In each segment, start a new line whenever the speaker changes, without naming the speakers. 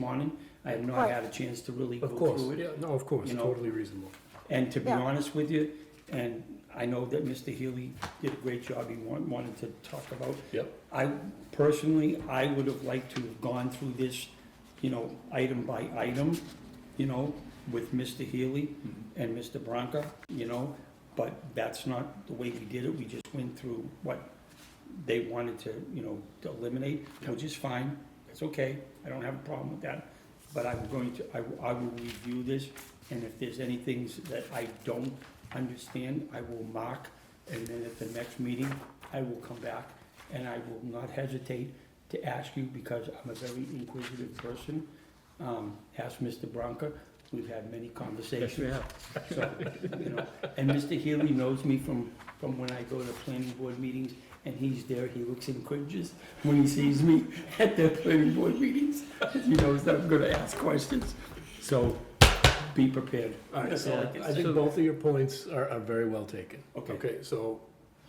morning. I have not
Right.
had a chance to really go
Of course,
through it.
yeah, no, of course,
you know.
totally reasonable.
And to be
Yeah.
honest with you, and I know that Mr. Healy did a great job, he wa- wanted to talk about.
Yep.
I personally, I would have liked to have gone through this, you know, item by item, you know, with Mr. Healy
Mm-hmm.
and Mr. Branca, you know, but that's not the way we did it, we just went through what they wanted to, you know, to eliminate, which is fine, that's okay, I don't have a problem with that. But I'm going to, I, will- I will review this, and if there's any things that I don't understand, I will mark, and then at the next meeting, I will come back, and I will not hesitate to ask you, because I'm a very inquisitive person. Um, ask Mr. Bronca, we've had many conversations. So, you know, and Mr. Healy knows me from, from when I go to planning board meetings, and he's there, he looks and cringes when he sees me at the planning board meetings. He knows that I'm gonna ask questions, so be prepared.
All right,
That's all I
so
can
I
say.
think both of your points are, are very well taken.
Okay.
Okay, so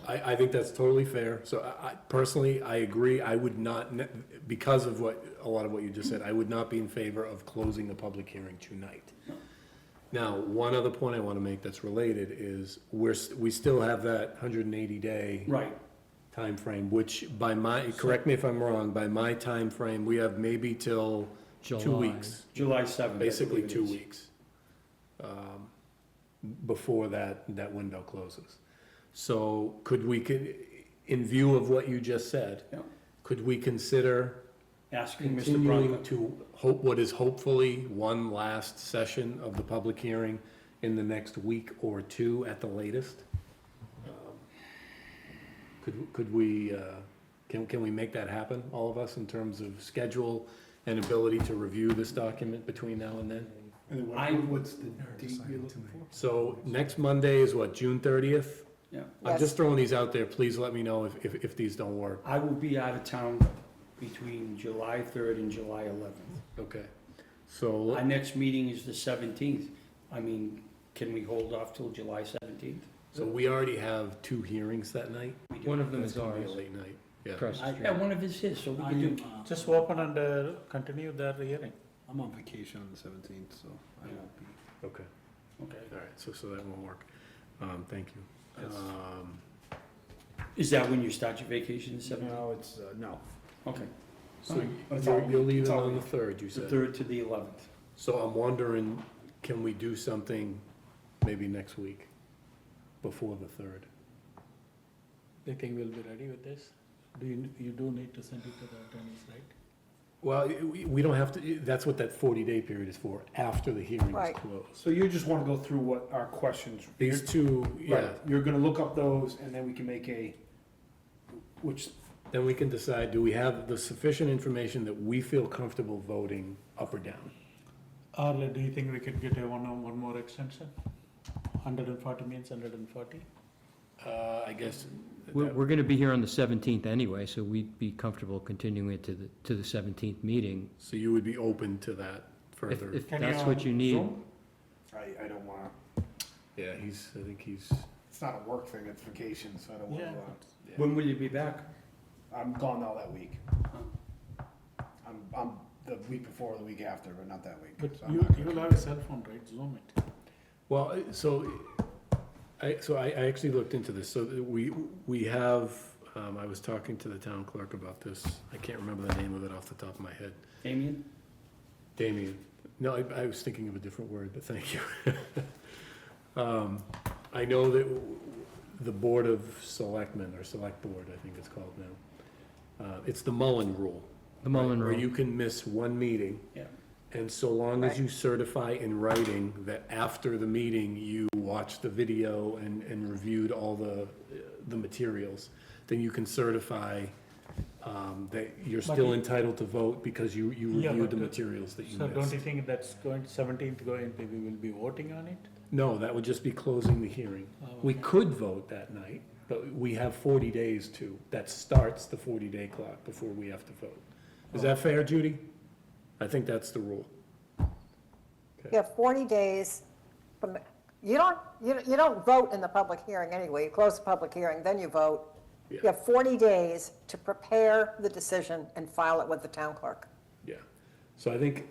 I, I think that's totally fair. So I, I personally, I agree, I would not, ne- because of what, a lot of what you just said, I would not be in favor of closing the public hearing tonight. Now, one other point I want to make that's related is we're, s- we still have that hundred and eighty day
Right,
time frame, which by my, correct me if I'm wrong, by my time frame, we have maybe till two
July.
weeks
July seventh.
basically two weeks um, before that, that window closes. So could we, could, in view of what you just said,
Yeah.
could we consider
Asking Mr.
continuing
Bronca,
to hope, what is hopefully one last session of the public hearing in the next week or two at the latest? Um, Could, could we, uh, can, can we make that happen, all of us, in terms of schedule and ability to review this document between now and then?
I,
What's the date
decided
you're looking
tonight.
for?
So next Monday is what, June thirtieth?
yeah,
I'm
Yes.
just throwing these out there, please let me know if, if, if these don't work,
I will be out of town between July third and July eleventh.
okay? So,
Our next meeting is the seventeenth. I mean, can we hold off till July seventeenth?
so we already have two hearings that night,
One of them
that's
is
gonna be a
ours.
late night, yeah.
Across the
I,
street.
yeah, one of his his, so we can do.
Just open and uh, continue the hearing.
I'm on vacation on the seventeenth, so I won't be.
Okay,
Okay.
all right, so, so that won't work, um, thank you.
Yes.
uh,
Um,
Is that when you start your vacation, the seventeenth?
No, it's, uh, no.
Okay,
so
Fine. It's all-
you're, you're
it's
leaving
all
on the
week.
third, you
the
said,
third to the eleventh.
so I'm wondering, can we do something maybe next week, before the third?
They think we'll be ready with this? Do you, you do need to send it to the attorneys, right?
Well, we, we don't have to, that's what that forty-day period is for, after the hearing is
Right.
closed.
So you just wanna go through what our questions,
These two,
right,
yeah,
you're gonna look up those and then we can make a, which,
then we can decide, do we have the sufficient information that we feel comfortable voting up or down?
Or like, do you think we could get a one, one more extension? Hundred and forty means hundred and forty?
Uh, I guess.
We're, we're gonna be here on the seventeenth anyway, so we'd be comfortable continuing it to the, to the seventeenth meeting.
So you would be open to that
If,
further?
if that's what you need.
I, I don't wanna,
Yeah, he's, I think he's,
It's not a work thing, it's vacation, so I don't wanna,
Yeah.
uh,
When will you be back?
I'm gone all that week. I'm, I'm the week before, or the week after, but not that week.
But
so I'm
you,
not
you
gonna-
will have a cell phone, right? Zoom it.
well, so, I, so I, I actually looked into this, so that we, we have, um, I was talking to the town clerk about this, I can't remember the name of it off the top of my head.
Damien?
Damien, no, I, I was thinking of a different word, but thank you. Um, I know that w- w- the Board of Selectmen, or Select Board, I think it's called now, uh, it's the Mullen Rule.
The Mullen
right, Where you
Rule.
can miss one meeting,
Yeah.
and so long as you certify in writing that after the meeting, you watched the video and, and reviewed all the, the materials, then you can certify, um, that you're
But
still
it-
entitled to vote because you, you
Yeah,
reviewed
but
the
the-
materials that you
So
missed.
don't you think that's going, seventeenth going, we will be voting on it?
No, that would just be closing the hearing.
Oh,
We
okay.
could vote that night, but we have forty days to, that starts the forty-day clock before we have to vote. Is
Oh.
that fair, Judy? I think that's the rule.
You have 40 days from, you don't, you you don't vote in the public hearing anyway. You close the public hearing, then you vote. You
Yeah.
have 40 days to prepare the decision and file it with the town clerk.
Yeah. So I think